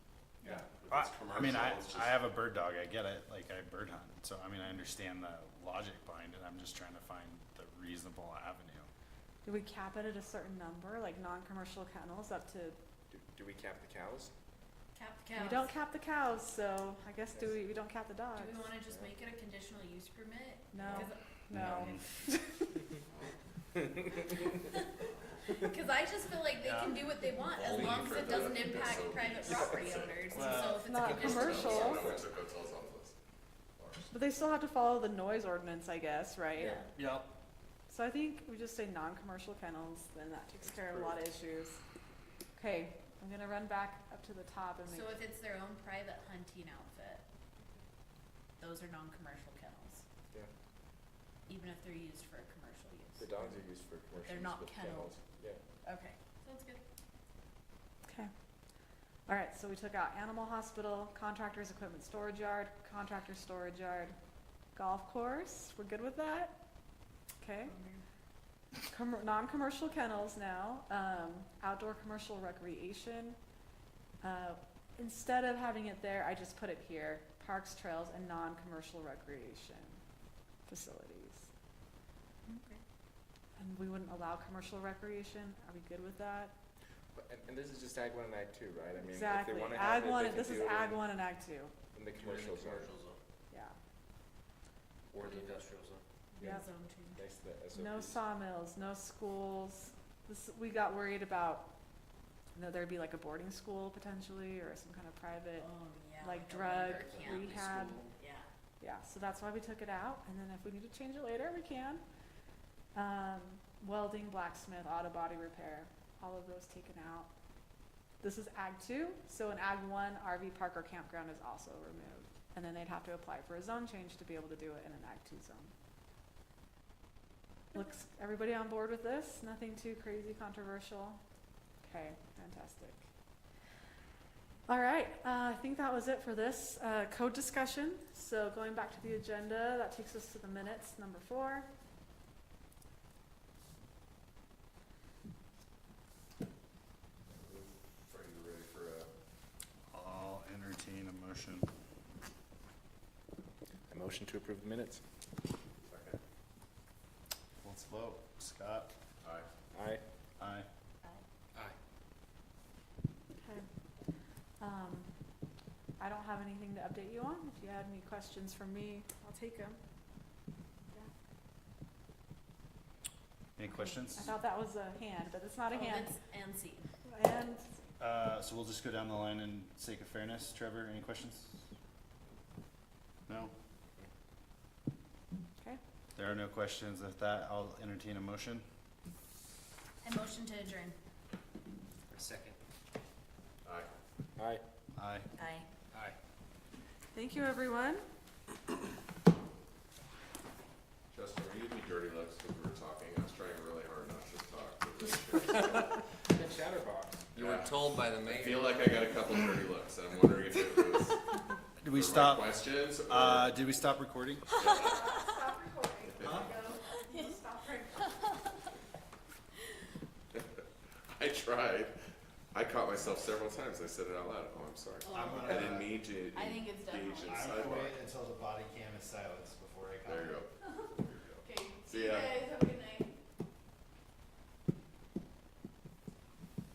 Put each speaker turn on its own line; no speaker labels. I,
It's
I mean, I,
commercial, it's
I
just-
have a bird dog, I get it, like, I bird hunt, so, I mean, I understand the logic behind it, I'm just trying to find the reasonable avenue.
Do we cap it at a certain number, like non-commercial kennels up to,
Do, do we cap the cows?
Cap the cows.
we don't cap the cows, so I guess do we, we don't cap the dogs?
Do we wanna just make it a conditional use permit?
No,
'Cause-
no.
Cause I just feel like they
Yeah.
can do what they want as
Only
long as
for
it
the
doesn't impact
conditional
private
use.
property owners, and
Well,
so if it's a
Not
conditional use.
commercial.
Sorry, we took hotels off the list. Ours.
But they still have to follow the noise ordinance, I guess, right?
Yeah.
Yep.
So I think we just say non-commercial kennels, then that takes care of a lot of issues. Okay, I'm gonna run back up to the top and
So
make,
if it's their own private hunting outfit, those are non-commercial kennels,
Yeah,
even if they're used for a commercial use.
the dogs are used for commercial.
They're
use,
not
but
kenneled.
kennels. Yeah.
Okay, sounds good.
okay. All right, so we took out animal hospital, contractor's equipment storage yard, contractor's storage yard, golf course, we're good with that? Okay. Com- non-commercial kennels now, um, outdoor commercial recreation. Uh, instead of having it there, I just put it here, parks, trails, and non-commercial recreation facilities.
Okay.
And we wouldn't allow commercial recreation, are we good with that?
But, and, and this is just ag one and ag two, right? I mean, if
Exactly,
they wanna have
ag
it,
one,
they
and-
can
this is
do it in-
ag one and ag two,
In the commercial zone,
yeah.
or the,
industrial zone.
Yeah.
Zone change.
next to the SOPs.
No sawmills, no schools. This, we got worried about, you know, there'd be like a boarding school potentially, or some kind of private,
Oh, yeah.
like
a
drug
labor camp.
rehab.
Yeah.
Yeah, so that's why we took it out, and then if we need to change it later, we can. Um, welding, blacksmith, auto body repair, all of those taken out. This is ag two, so in ag one, RV park or campground is also removed, and then they'd have to apply for a zone change to be able to do it in an ag two zone. Looks, everybody on board with this? Nothing too crazy controversial? Okay, fantastic. All right, uh, I think that was it for this uh, code discussion. So going back to the agenda, that takes us to the minutes, number four.
Frank, you ready for a
I'll entertain a motion.
A motion to approve the minutes.
second?
Let's vote. Scott?
Aye.
Aye.
Aye.
Aye.
Okay. Um, I don't have anything to update you on. If you had any questions for me, I'll take them.
Any questions?
I thought that was a hand, but it's not a
Oh,
hand.
that's- And C.
And
Uh, so we'll just go down the line in sake of fairness. Trevor, any questions? No?
Okay.
There are no questions. If that, I'll entertain a motion.
And motion to adjourn.
Second.
Aye.
Aye.
Aye.
Aye.
Aye.
thank you, everyone.
Justin, were you giving me dirty looks because we were talking? I was trying really hard not to talk. but this
chatterbox.
You were
Yeah.
told by the
I
mayor.
feel like I got a couple dirty looks. I'm wondering if it was
Did
the
we
right
stop,
questions or
uh, did we stop recording?
Stop recording. Stop recording.
I tried. I caught myself several times. I said it out loud. Oh, I'm sorry. I didn't mean to
I think it's
engage in
definitely-
I'm
sidewalk.
gonna wait until the body cam is silenced before I comment.
There you go.
Okay,
See ya.
have a good